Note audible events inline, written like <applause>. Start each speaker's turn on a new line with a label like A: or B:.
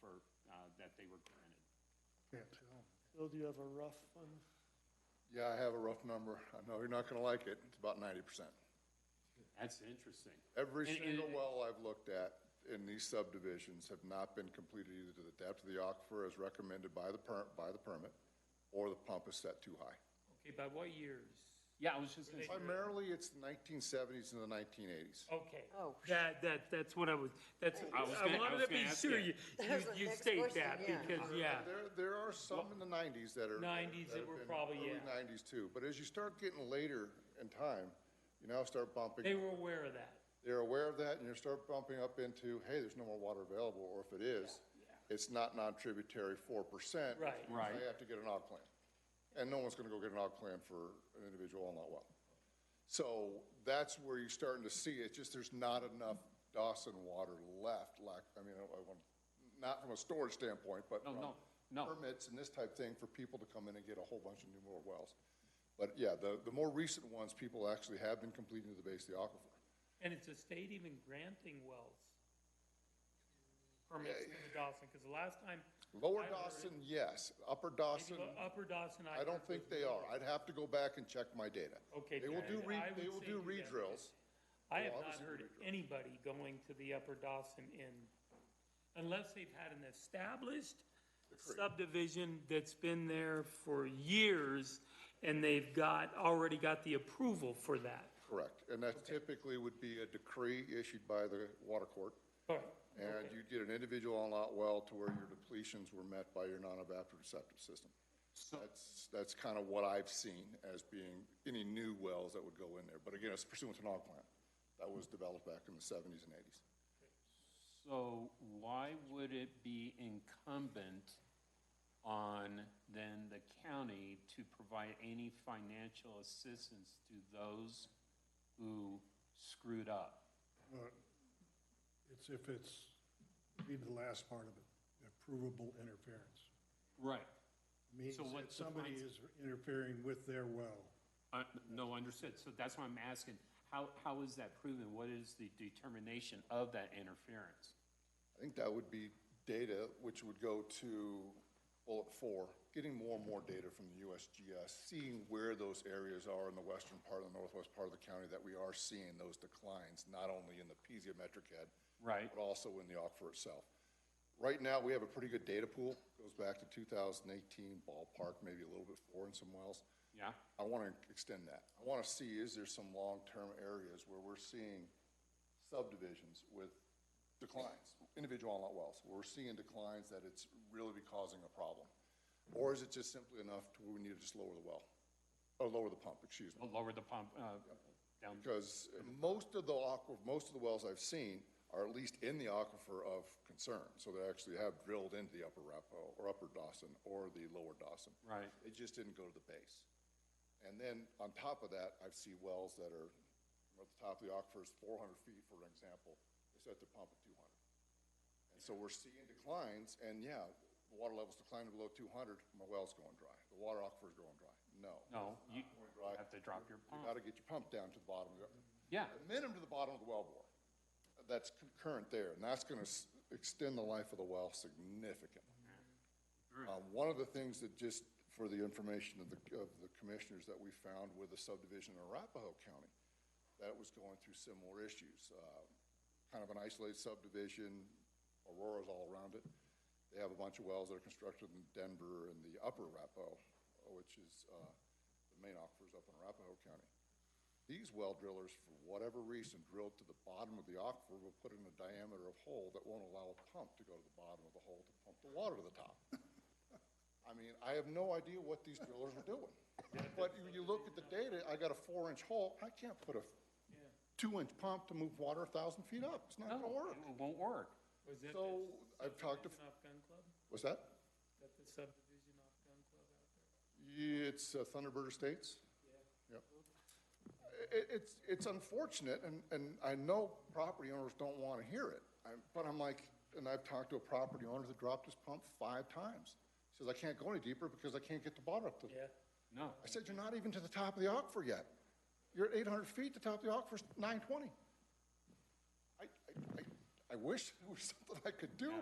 A: for, uh, that they were granted.
B: Bill, do you have a rough one?
C: Yeah, I have a rough number. I know you're not gonna like it. It's about ninety percent.
A: That's interesting.
C: Every
A: And- and-
C: single well I've looked at in these subdivisions have not been completed either to the depth of the aquifer as recommended by the per, by the permit, or the pump is set too high.
D: Okay, by what years?
A: Yeah, I was just gonna say,
C: Primarily, it's nineteen seventies and the nineteen eighties.
D: Okay.
E: Oh.
D: That, that, that's what I was, that's,
A: I was
D: I
A: gonna- I
D: wanted
A: was
D: to be
A: gonna ask
D: sure
A: you.
D: you,
E: That was the
D: you you
E: next
D: state
E: question,
D: that,
E: yeah.
D: because, Oh, yeah.
C: There, there are some in the nineties that are.
D: 90s that
C: have
D: were
C: been
D: probably,
C: early
D: yeah.
C: Nineties too, but as you start getting later in time, you now start bumping.
D: They were aware of that.
C: they're aware of that, and you start bumping up into, hey, there's no more water available, or if it is, it's not non-tributary four percent.
D: Right.
A: Right.
C: They have to get an og plan, and no one's gonna go get an og plan for an individual on that well. So that's where you're starting to see it, just there's not enough Dawson water left, like, I mean, I want, not from a storage standpoint, but
A: No,
C: from
A: no, no.
C: permits and this type thing for people to come in and get a whole bunch of new more wells. But yeah, the, the more recent ones, people actually have been completing to the base of the aquifer.
D: And it's a state even granting wells. Permits in the Dawson, because the last time,
C: Lower
D: I've heard
C: Dawson, yes. Upper
D: maybe
C: Dawson,
D: Upper Dawson.
C: I don't
D: heard
C: think
D: was
C: they
D: no.
C: are. I'd have to go back and check my data.
D: Okay,
C: They will
D: I-
C: do, re-
D: I would
C: they will
D: say
C: do
D: do that.
C: redrills.
D: I have
C: Well,
D: not
C: obviously,
D: heard
C: we drove.
D: anybody going to the Upper Dawson Inn unless they've had an established subdivision that's been there for years and they've got, already got the approval for that.
C: Correct. And that typically would be a decree issued by the water court.
D: All right,
C: And you'd get an individual on lot well to where your depletions were met by your non-evaporative septic system. That's, that's kind of what I've seen as being any new wells that would go in there. But again, it's pursuant to an aquifer plan that was developed back in the seventies and eighties.
A: So why would it be incumbent on then the county to provide any financial assistance to those who screwed up?
F: Uh, It's if it's, read the last part of it, provable interference.
A: Right.
F: Means
A: So what
F: that somebody
A: defines-
F: is interfering with their well.
A: Uh, no, understood. So that's why I'm asking, how, how is that proven? What is the determination of that interference?
C: I think that would be data, which would go to bullet four, getting more and more data from the USGS, seeing where those areas are in the western part and the northwest part of the county that we are seeing those declines, not only in the piezometric head.
A: Right.
C: But also in the aquifer itself. Right now, we have a pretty good data pool, goes back to 2018 ballpark, maybe a little bit more in some wells.
A: Yeah?
C: I want to extend that. I want to see, is there some long-term areas where we're seeing subdivisions with declines, individual lot wells? We're seeing declines that it's really be causing a problem? Or is it just simply enough to where we need to just lower the well, or lower the pump, excuse me?
A: Well, Lower the pump, uh, down.
C: Because most of the aqua, most of the wells I've seen are at least in the aquifer of concern. So they actually have drilled into the upper Rapo, or upper Dawson, or the lower Dawson.
A: Right.
C: It just didn't go to the base. And then on top of that, I see wells that are, at the top of the aquifer is four hundred feet, for example, they set their pump at two hundred. And so we're seeing declines, and yeah, the water level's declining below two hundred, my well's going dry. The water aquifer's going dry. No.
A: No, you
C: It's not going dry.
A: have to drop your
C: You
A: pump.
C: gotta get your pump down to the bottom of the
A: Yeah.
C: a minimum to the bottom of the well bore. That's concurrent there, and that's gonna s- extend the life of the well significantly. Uh, one of the things that just, for the information of the, of the commissioners that we found with a subdivision in Arapahoe County, that was going through similar issues, uh, kind of an isolated subdivision, Aurora's all around it. They have a bunch of wells that are constructed in Denver and the upper Arapahoe, which is, uh, the main aquifers up in Arapahoe County. These well drillers, for whatever reason, drilled to the bottom of the aquifer, will put in a diameter of hole that won't allow a pump to go to the bottom of the hole to pump the water to the top. <laughs> I mean, I have no idea what these drillers were doing. But when you look at the data, I got a four-inch hole, I can't put a two-inch pump to move water a thousand feet up, it's not
A: No,
C: gonna work.
A: it won't work.
D: was that
C: So,
D: the
C: I've talked to-
D: subdivision Off Gun Club?
C: Was that?
D: That the subdivision off Gun Club out there?
C: Yeah, It's uh, Thunderbird Estates? Yeah. It, it's, it's unfortunate, and, and I know property owners don't want to hear it, I'm- but I'm like, and I've talked to a property owner that dropped his pump five times. Says, I can't go any deeper because I can't get the bottom up to.
D: Yeah.
A: No.
C: I said, you're not even to the top of the aquifer yet. You're at eight hundred feet, the top of the aquifer's nine twenty. I, I, I, I wish there was <laughs> something I could do,